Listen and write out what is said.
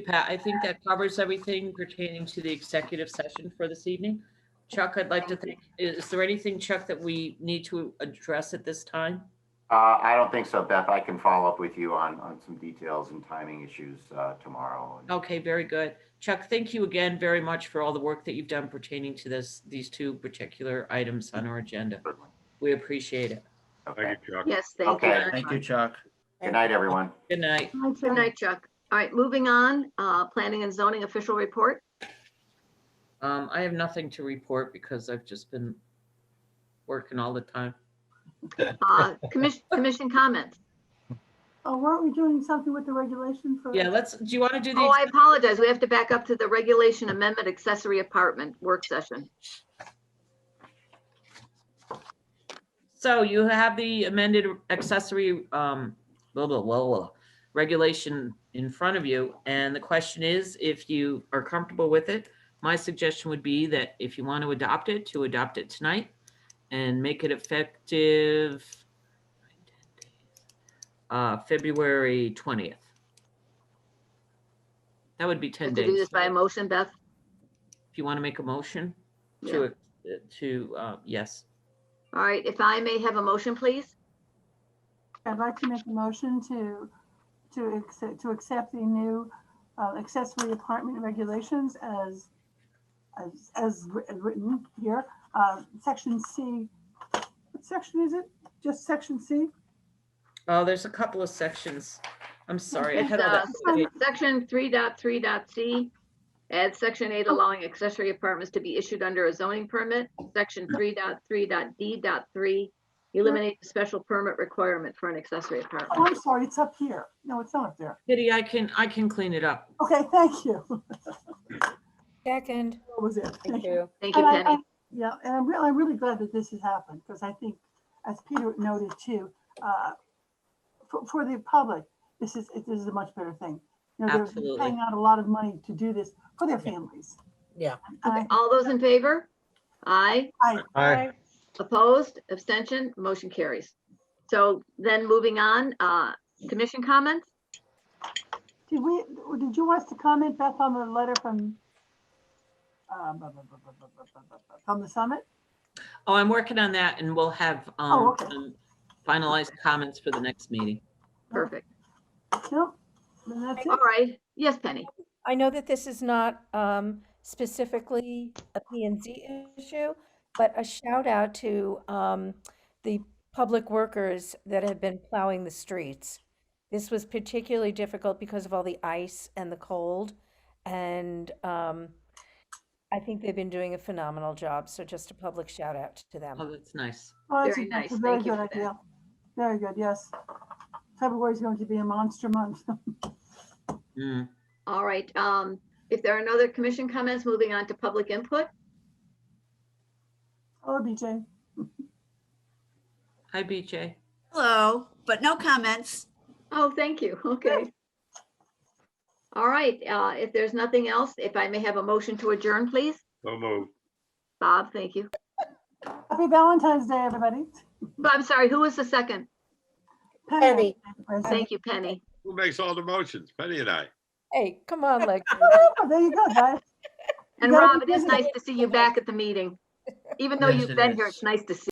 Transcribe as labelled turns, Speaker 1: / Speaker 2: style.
Speaker 1: Pat, I think that covers everything pertaining to the executive session for this evening. Chuck, I'd like to think, is there anything, Chuck, that we need to address at this time?
Speaker 2: Uh, I don't think so, Beth. I can follow up with you on, on some details and timing issues, uh, tomorrow.
Speaker 1: Okay, very good. Chuck, thank you again very much for all the work that you've done pertaining to this, these two particular items on our agenda. We appreciate it.
Speaker 2: Okay.
Speaker 3: Thank you, Chuck.
Speaker 4: Yes, thank you.
Speaker 2: Okay,
Speaker 4: very
Speaker 5: Thank you,
Speaker 4: much.
Speaker 5: Chuck.
Speaker 2: Good night, everyone.
Speaker 1: Good night.
Speaker 4: All right, Good night, Chuck. All right, moving on, uh, planning and zoning official report.
Speaker 1: Um, I have nothing to report because I've just been working all the time.
Speaker 4: Uh, Commission, commission comments.
Speaker 6: Oh, weren't we doing something with the regulation for?
Speaker 1: Yeah, let's, do you want to do
Speaker 4: Oh, I
Speaker 1: the,
Speaker 4: apologize. We have to back up to the regulation amendment accessory apartment work session.
Speaker 1: so you have the amended accessory, um, blah, blah, blah, blah, regulation in front of you. And the question is, if you are comfortable with it, my suggestion would be that if you want to adopt it, to adopt it tonight and make it effective uh, February 20th. That would be
Speaker 4: Have
Speaker 1: 10
Speaker 4: to
Speaker 1: days.
Speaker 4: do this by a motion, Beth?
Speaker 1: If you want to make a motion
Speaker 4: Yeah.
Speaker 1: to, to, uh, yes.
Speaker 4: All right, if I may have a motion, please?
Speaker 6: I'd like to make a motion to, to accept, to accept the new uh, accessory apartment regulations as, as, as wri- written here, uh, section C. What section is it? Just section C?
Speaker 1: Oh, there's a couple of sections. I'm sorry, I
Speaker 4: It's,
Speaker 1: had all
Speaker 4: uh,
Speaker 1: that.
Speaker 6: Okay.
Speaker 4: Section 3.3.c. add section eight allowing accessory apartments to be issued under a zoning permit. Section 3.3.d.3 eliminate the special permit requirement for an accessory
Speaker 6: Oh,
Speaker 4: apartment.
Speaker 6: I'm sorry, it's up here. No, it's not up there.
Speaker 1: Kitty, I can, I can clean it up.
Speaker 6: Okay, thank you. That
Speaker 7: Second.
Speaker 6: was it. Thank you.
Speaker 4: Thank you,
Speaker 6: And I-
Speaker 4: Penny.
Speaker 6: I- Yeah, and I'm really, I'm really glad that this has happened, because I think, as Peter noted too, uh, for, for the public, this is, it- this is a much better thing. You know, they're
Speaker 1: Absolutely.
Speaker 6: paying out a lot of money to do this for their families.
Speaker 8: Yeah.
Speaker 6: And I-
Speaker 4: All those in favor? Aye.
Speaker 6: I,
Speaker 7: Aye.
Speaker 4: Opposed, abstention, motion carries. So then moving on, uh, commission comments?
Speaker 6: did we, did you want us to comment, Beth, on the letter from, um, bu- bu- bu- bu- bu- bu- bu- bu- from the summit?
Speaker 1: Oh, I'm working on that and we'll have
Speaker 6: Oh,
Speaker 1: um,
Speaker 6: okay.
Speaker 1: some finalized comments for the next meeting.
Speaker 4: Perfect.
Speaker 6: No? Then that's
Speaker 4: All
Speaker 6: it?
Speaker 4: right. Yes, Penny.
Speaker 7: I know that this is not um, specifically a P and Z issue, but a shout out to um, the public workers that have been plowing the streets. This was particularly difficult because of all the ice and the cold. And um, I think they've been doing a phenomenal job. So just a public shout out to them.
Speaker 1: Oh, that's nice.
Speaker 6: Well, that's
Speaker 4: Very
Speaker 6: a- that's a
Speaker 4: nice.
Speaker 6: Very
Speaker 4: Thank you
Speaker 6: good
Speaker 4: for that.
Speaker 6: idea. Very good, yes. February's going to be a monster month.
Speaker 1: Mm.
Speaker 4: All right. Um, if there are no other commission comments, moving on to public input.
Speaker 6: Oh, BJ.
Speaker 1: Hi, BJ.
Speaker 8: Hello, but no comments.
Speaker 4: Oh, thank you. Okay. All right. Uh, if there's nothing else, if I may have a motion to adjourn, please.
Speaker 3: So moved.
Speaker 4: Bob, thank you.
Speaker 6: Happy Valentine's Day, everybody.
Speaker 4: Bob, I'm sorry, who was the second?
Speaker 6: Penny. Thank
Speaker 4: Thank you, Penny.
Speaker 3: Who makes all the motions? Penny and I.
Speaker 7: Hey, come on, like.
Speaker 6: you. There you go, guys.
Speaker 4: And
Speaker 6: gotta be
Speaker 4: Rob, it is
Speaker 6: busy.
Speaker 4: nice to see you back at the meeting. Even though
Speaker 5: Yes,
Speaker 4: you've
Speaker 5: it
Speaker 4: been here,
Speaker 5: is.
Speaker 4: it's nice to see